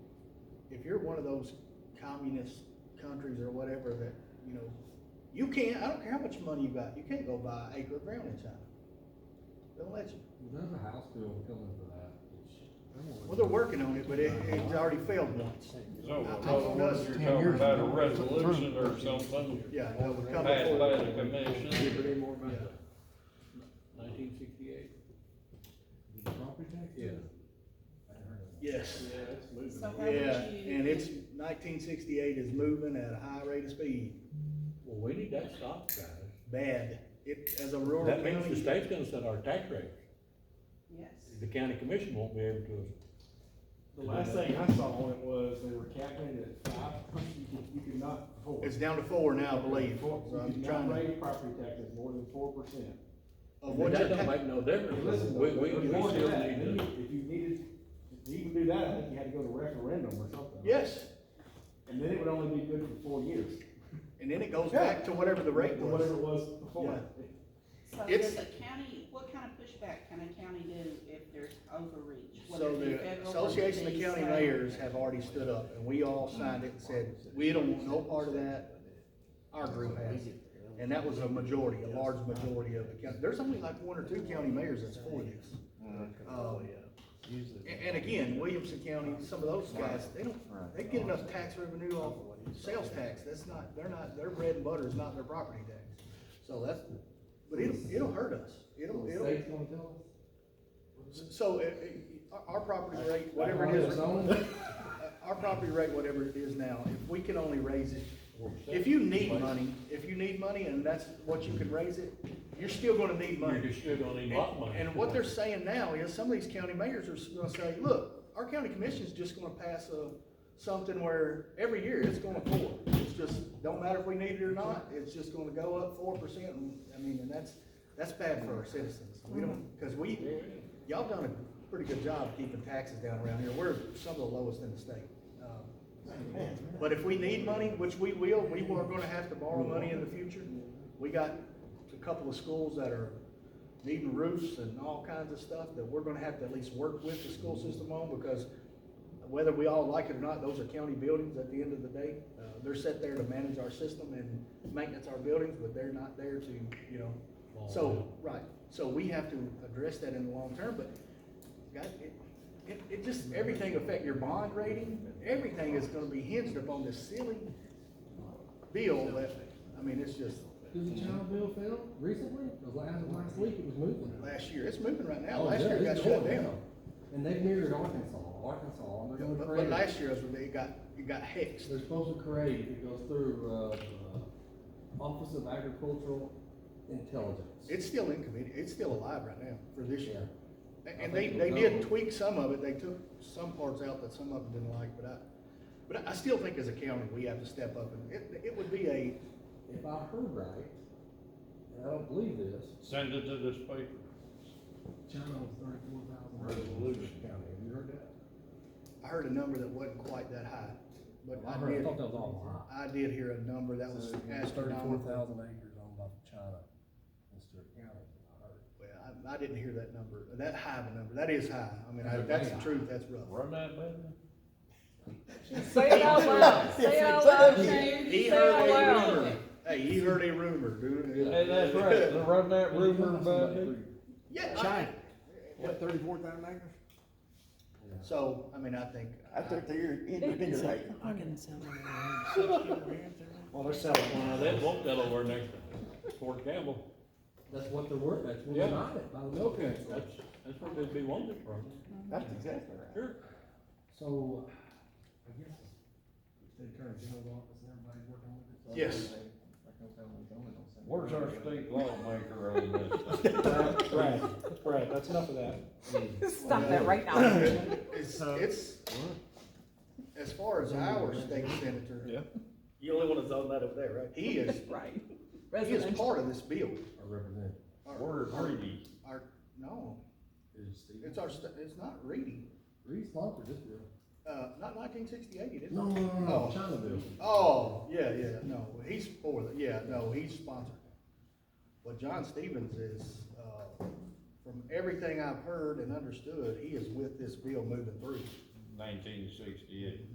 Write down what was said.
if you're one of those communist countries or whatever that, you know, you can't, I don't care how much money you got, you can't go buy an acre of ground in China. They'll let you. There's a house bill coming for that. Well, they're working on it, but it, it's already failed once. I- So, I in other don't words, know. you're Ten talking years about a ago. resolution or something Yeah, that would come passed by the before. commission. Give her any more about Yeah. Nineteen sixty-eight? Property tax? Yes. Yeah, that's So moving. how would you? Yeah, and it's nineteen sixty-eight is moving at a high rate of speed, Well, we need that stopped, guys. bad. It, as a rural That means the county, state's gonna set our tax rate. Yes. The county commission won't be able to. The last thing I saw on it was they were capping it at five percent, you could, you could not afford. it's down to four now, I believe. Four- So You I'm could trying not to- raise property taxes more than four percent. Of what That your don't ta- make no difference. Listen, though, We, we, but we more than still that, need to. If you needed, to even do that, I think you had to go to referendum or something. Yes, And then it would only be good for four years. and then it goes back to whatever the rate Whatever was. it was before. So It's- does the county, what kind of pushback can a county do if there's overreach? whether So it be the federal or Association of state, County state? Mayors have already stood up, and we all signed it and said, we don't want no part of that. Our group has, and that was a majority, a large majority of the county. There's only like one or two county mayors that's for this. Um, a- And, again, Williamson County, some of those guys, they don't, they get enough tax revenue off sales tax, that's not, they're not, their bread and butter is not their property tax. So that's, but it'll, it'll hurt us, it'll, The it'll. state's gonna tell us? So, uh, uh, our, our property rate, whatever it is, uh, Zone? our property rate, whatever it is now, if we can only raise it, if you need money, if you need money and that's what you can raise it, you're still gonna need You're money. still gonna need a lot of money. And what they're saying now is some of these county mayors are s- gonna say, look, our county commission's just gonna pass a, something where every year it's gonna pour. It's just, don't matter if we need it or not, it's just gonna go up four percent. I mean, and that's, that's bad for our citizens. We don't, cause we, Y'all done a pretty good job keeping taxes down around here. We're some of the lowest in the state. Um, But if we need money, which we will, we are gonna have to borrow money in the future. We got a couple of schools that are needing roofs and all kinds of stuff that we're gonna have to at least work with the school system on because whether we all like it or not, those are county buildings at the end of the day. Uh, They're set there to manage our system and maintenance our buildings, but they're not there to, you know. So, right, so we have to address that in the long term, but God, it, it, it just, everything affect your bond rating. Everything is gonna be hinged upon this silly bill that, I mean, it's just, Did the child bill fail recently? Because last, last week it was moving. last year, it's moving right now. Oh, Last yeah, year it got it's shut going down. And they mirrored Arkansas, Arkansas, and they're gonna But, create. but last year is when they got, it got hexed. They're supposed to create, it goes through, uh, uh, Office of Agricultural Intelligence. It's still in committee, it's still alive right now for this year. A- I And they, think they it'll did go. tweak some of it, they took some parts out that some of them didn't like, but I, but I still think as a county, we have to step up and it, it would be a, If I heard right, and I don't believe this, Send it to this paper. China was thirty-four thousand. Resolution. County, have you heard that? I heard a number that wasn't quite that high, but I heard- did, thought that was all I did hear a number that was Thirty-four astronomical. thousand acres owned by China in Stewart County, I heard. Well, I, I didn't hear that number, that high of a number, that is high, I mean, I- that's the truth, that's rough. Run that by them. Say it out loud, say it out loud, Shane, He say it heard out a loud. rumor, hey, he heard a rumor, dude. Hey, that's right, run that rumor by them. Yeah. I- China, what, thirty-four thousand acres? So, I mean, I think. I think they're independent. I can sound like Well, they're selling Now, they won't tell over next Fort Campbell. That's what they're worth, that's what Yeah. they got it, by the milk council. That's, that's where they'd be wanted from. That's exactly right. Sure. So, I guess it's the attorney general's office and everybody's working with it. so Yes. Where's our state lawmaker on this? Right, right, that's enough of that. that. Stop that right now. It's, it's, as far as our state senator. Yeah. You only want to zone that over there, right? He is, Right. he is Residential. part of this bill. Our representative. Our- We're greedy. Our, no, Is Steve. it's our, sta- it's not Reedy, Reed sponsored this bill. uh, not nineteen sixty-eight, it is. No, no, no, no, Oh. China bill. Oh, yeah, yeah, no, he's for the, yeah, no, he's sponsored. But John Stevens is, uh, from everything I've heard and understood, he is with this bill moving through. Nineteen sixty-eight.